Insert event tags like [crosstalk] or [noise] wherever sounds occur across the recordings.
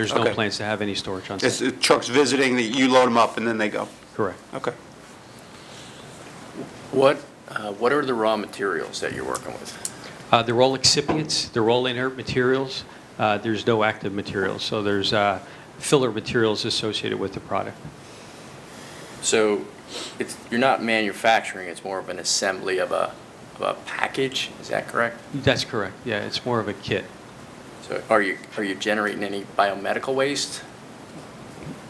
There's no Okay. plans to have any storage on It's site. uh, trucks visiting, that you load them up and then they go? Correct. Okay. What, uh, what are the raw materials that you're working with? Uh, They're all excipients, they're all inert materials. Uh, There's no active materials, so there's uh, filler materials associated with the product. So it's, you're not manufacturing, it's more of an assembly of a, of a package, is that correct? That's correct, yeah, it's more of a kit. So are you, are you generating any biomedical waste?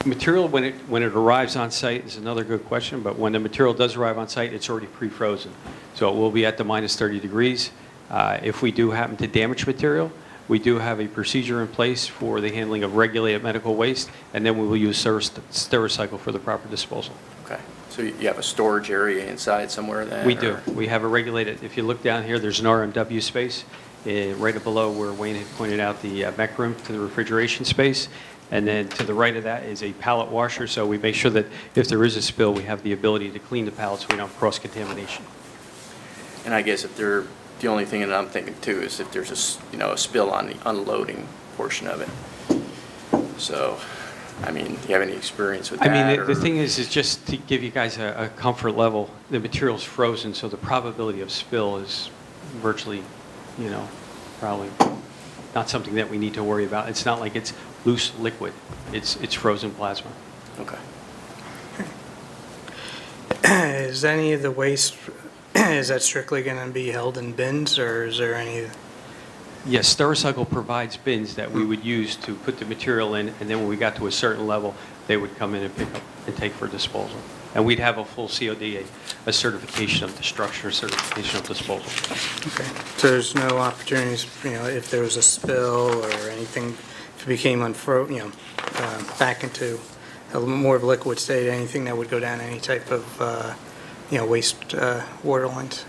Material, when it, when it arrives on site, is another good question, but when the material does arrive on site, it's already pre-frozen. So it will be at the minus 30 degrees. Uh, If we do happen to damage material, we do have a procedure in place for the handling of regulated medical waste, and then we will use Steric- Stericycle for the proper disposal. Okay, so you you have a storage area inside somewhere then? We do. or- We have a regulated, if you look down here, there's an RMW space, eh, right below where Wayne had pointed out the uh, back room to the refrigeration space. And then to the right of that is a pallet washer, so we make sure that if there is a spill, we have the ability to clean the pallets, so we don't cross contamination. And I guess if there, the only thing that I'm thinking too is if there's a, s- you know, a spill on the unloading portion of it. So, I mean, do you have any experience with I that? mean, the- the or- thing is, is just to give you guys a, a comfort level, the material's frozen, so the probability of spill is virtually, you know, probably not something that we need to worry about. It's not like it's loose liquid. It's, it's frozen plasma. Okay. [clears throat] Is any of the waste, [clears throat] is that strictly going to be held in bins, or is there any, Yes, Stericycle provides bins that we would use to put the material in, and then when we got to a certain level, they would come in and pick up and take for disposal. And we'd have a full COD, a- a certification of destruction, or certification of disposal. okay, so there's no opportunities, you know, if there was a spill or anything, if it became unfro, you know, uh, back into a l- more of a liquid state, anything that would go down any type of, uh, you know, waste uh, water lines?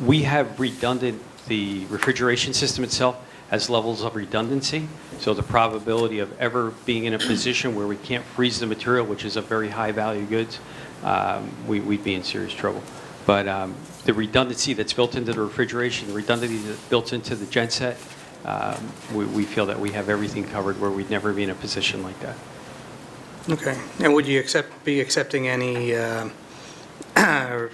We have redundant, the refrigeration system itself has levels of redundancy, so the probability of ever being in a position where we can't freeze the material, which is a very high-value goods, um, we- we'd be in serious trouble. But um, the redundancy that's built into the refrigeration, the redundancy that's built into the genset, um, we- we feel that we have everything covered where we'd never be in a position like that. Okay, and would you accept, be accepting any uh, [clears throat]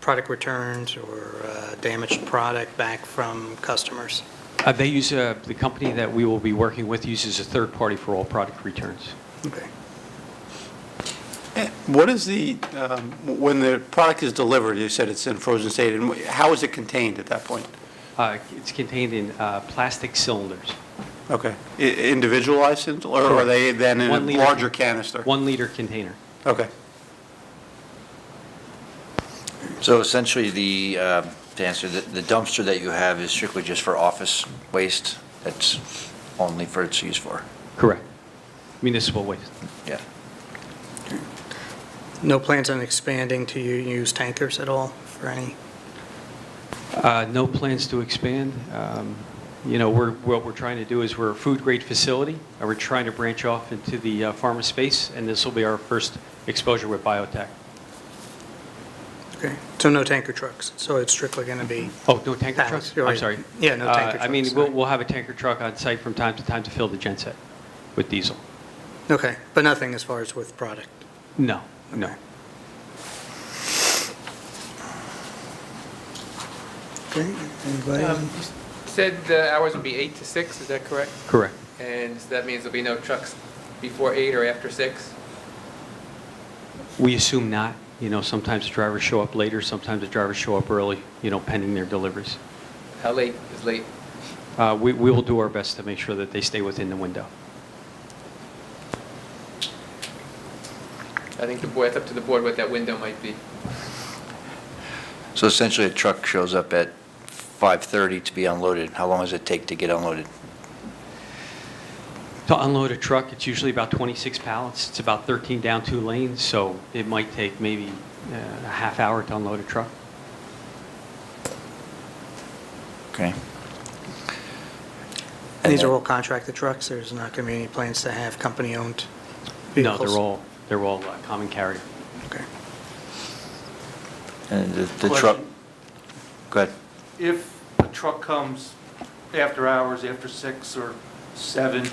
product returns or uh, damaged product back from customers? Uh, They use, uh, the company that we will be working with uses a third party for all product returns. Okay. Eh, What is the, um, when the product is delivered, you said it's in frozen state, and wh- how is it contained at that point? Uh, It's contained in uh, plastic cylinders. Okay. I- Individualized, in- or are they then in a One liter- larger canister? One-liter container. Okay. So essentially, the, uh, to answer, the the dumpster that you have is strictly just for office waste? That's only for its use for? Correct. Municipal waste. Yeah. No plans on expanding to u- use tankers at all for any? Uh, No plans to expand. Um, You know, we're, what we're trying to do is we're a food-grade facility, and we're trying to branch off into the uh, pharma space, and this will be our first exposure with biotech. Okay, so no tanker trucks, so it's strictly going to be, Oh, no tanker Pallets, trucks? you're I'm right. sorry. Yeah, no Uh, tanker I mean, trucks, we'll, sorry. we'll have a tanker truck on site from time to time to fill the genset with diesel. okay, but nothing as far as with product? No, no. Okay, Um, anybody? You Said the hours would be eight to six, is that correct? Correct. And so that means there'll be no trucks before eight or after six? We assume not. You know, sometimes the drivers show up later, sometimes the drivers show up early, you know, pending their deliveries. How late is late? Uh, We we will do our best to make sure that they stay within the window. I think the board, it's up to the board what that window might be. So essentially, a truck shows up at 5:30 to be unloaded. How long does it take to get unloaded? To unload a truck, it's usually about 26 pallets. It's about 13 down two lanes, so it might take maybe uh, a half hour to unload a truck. Okay? And these are all contracted trucks, there's not going to be any plans to have company-owned No, vehicles? they're all, they're all uh, common carrier. Okay. And the the truck, Question. go ahead. If a truck comes after hours, after six or seven,